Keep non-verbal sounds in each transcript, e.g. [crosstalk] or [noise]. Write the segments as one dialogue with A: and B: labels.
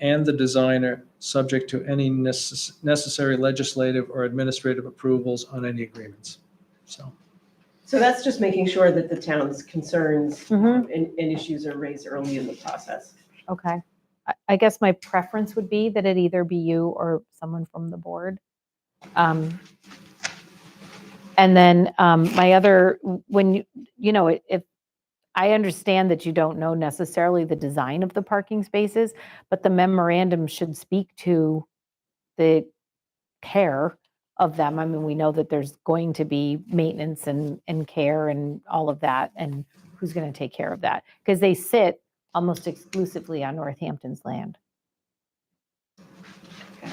A: and the designer, subject to any necess- necessary legislative or administrative approvals on any agreements. So,
B: So that's just making sure that the town's concerns
C: Mm-hmm,
B: and, and issues are raised early in the process.
C: okay. I, I guess my preference would be that it either be you or someone from the board. Um, And then um, my other, when, you you know, if, I understand that you don't know necessarily the design of the parking spaces, but the memorandum should speak to the care of them. I mean, we know that there's going to be maintenance and, and care and all of that, and who's going to take care of that? Because they sit almost exclusively on Northampton's land.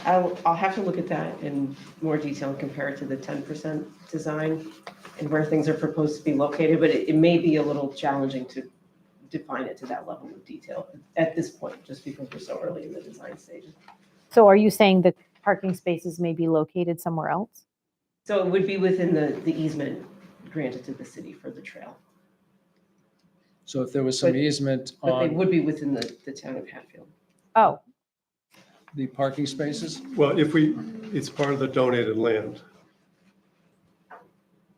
B: I'll, I'll have to look at that in more detail and compare it to the ten percent design and where things are proposed to be located, but it, it may be a little challenging to define it to that level of detail at this point, just because we're so early in the design stage.
C: So are you saying that parking spaces may be located somewhere else?
B: So it would be within the, the easement granted to the city for the trail,
A: so if there was some
B: But-
A: easement
B: but they
A: on
B: would be within the, the town of Hatfield.
C: Oh,
A: the parking spaces,
D: Well, if we, it's part of the donated land,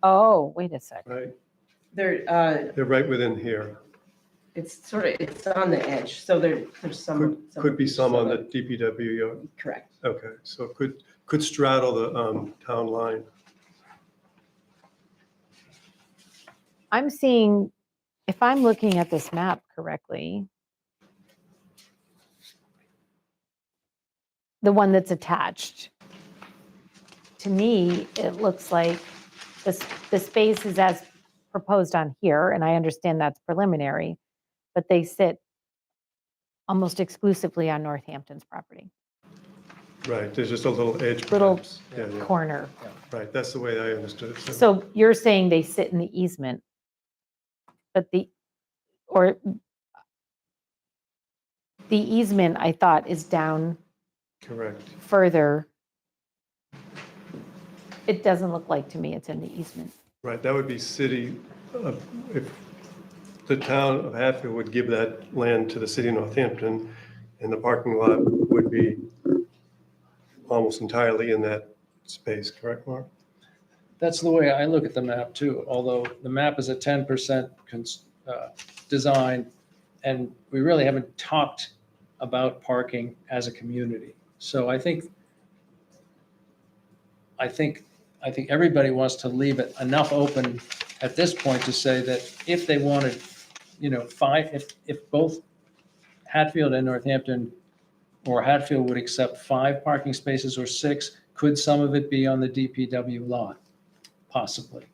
C: oh, wait a sec.
D: right?
B: There, uh,
D: They're right within here.
B: It's sort of, it's on the edge, so there, there's some.
D: Could be some on the DPW, yard.
B: Correct.
D: okay, so it could, could straddle the um, town line.
C: I'm seeing, if I'm looking at this map correctly, the one that's attached, to me, it looks like the, the space is as proposed on here, and I understand that's preliminary, but they sit almost exclusively on Northampton's property,
D: Right, there's just a little edge.
C: Little
D: perhaps. Yeah, yeah,
C: corner.
D: Right, that's the way I understood it.
C: So you're saying they sit in the easement, but the, or the easement, I thought, is down
D: Correct.
C: further. It doesn't look like to me it's in the easement.
D: Right, that would be city, uh, if the town of Hatfield would give that land to the city of Northampton, and the parking lot would be almost entirely in that space, correct, Mark?
A: that's the way I look at the map too, although the map is a ten percent uh, design, and we really haven't talked about parking as a community. So I think, I think, I think everybody wants to leave it enough open at this point to say that if they wanted, you know, five, if, if both Hatfield and Northampton, or Hatfield would accept five parking spaces or six, could some of it be on the DPW lot? Possibly.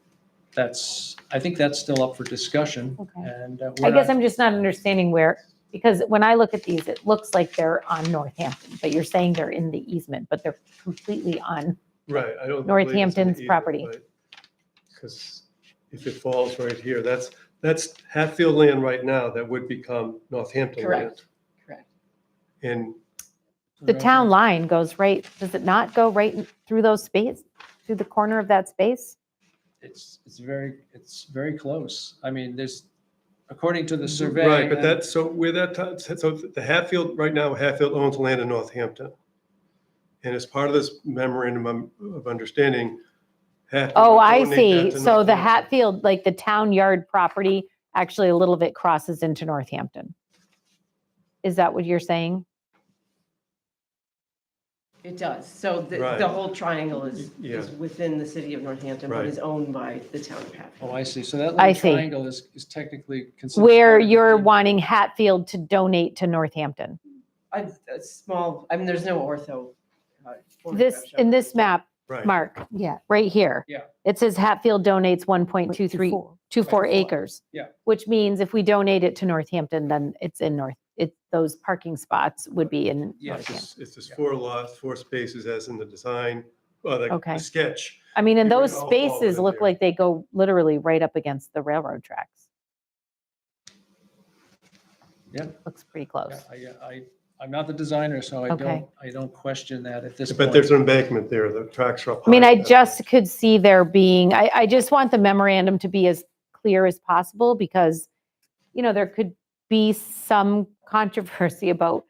A: That's, I think that's still up for discussion,
C: Okay.
A: and uh,
C: I
A: we're
C: guess
A: not
C: I'm just not understanding where, because when I look at these, it looks like they're on Northampton, but you're saying they're in the easement, but they're completely on.
D: Right, I don't.
C: Northampton's property.
D: Because if it falls right here, that's, that's Hatfield land right now that would become Northampton land.
B: Correct. Correct.
D: And
C: The town line goes right, does it not go right through those space, through the corner of that space?
A: It's, it's very, it's very close. I mean, there's, according to
C: Mm-hmm.
A: the survey.
D: Right, but
A: and-
D: that's, so where that, ti- so the Hatfield, right now, Hatfield owns land in Northampton. And as part of this memorandum of understanding, Hatfield.
C: Oh,
D: would
C: I
D: donate
C: see.
D: that to
C: So the
D: Northampton.
C: Hatfield, like the town yard property, actually a little bit crosses into Northampton. Is that what you're saying?
B: It does, so the,
D: Right.
B: the whole triangle is, is
D: Yeah.
B: within the city of Northampton, but
D: Right.
B: is owned by the town of Hatfield.
A: Oh, I see. So that
C: I
A: little
C: see.
A: triangle is, is technically considered.
C: Where
A: part of the
C: you're
A: deed.
C: wanting Hatfield to donate to Northampton.
B: A, a small, I mean, there's no ortho. uh,
C: This,
B: photograph
C: in
B: showing.
C: this map,
D: Right.
C: Mark. Yeah. Right here.
A: Yeah.
C: It says Hatfield donates 1.23, 24
A: Right, four.
C: acres.
A: Yeah.
C: Which means if we donate it to Northampton, then it's in North, it, those parking spots would be in
A: Yes.
D: It's
C: Northampton.
D: just- It's just four lots, four spaces as in the design, uh, the-
C: Okay.
D: the sketch.
C: I mean, and
D: It would
C: those
D: all fall
C: spaces
D: within
C: look
D: there.
C: like they go literally right up against the railroad tracks.
A: Yeah.
C: Looks pretty close.
A: Yeah, I, I, I'm not the designer, so I
C: Okay.
A: don't, I don't question that at this point.
D: But there's an embankment there, the tracks are up.
C: I mean,
D: high.
C: I just could see there being, I, I just want the memorandum to be as clear as possible because, you know, there could be some controversy [laughs] about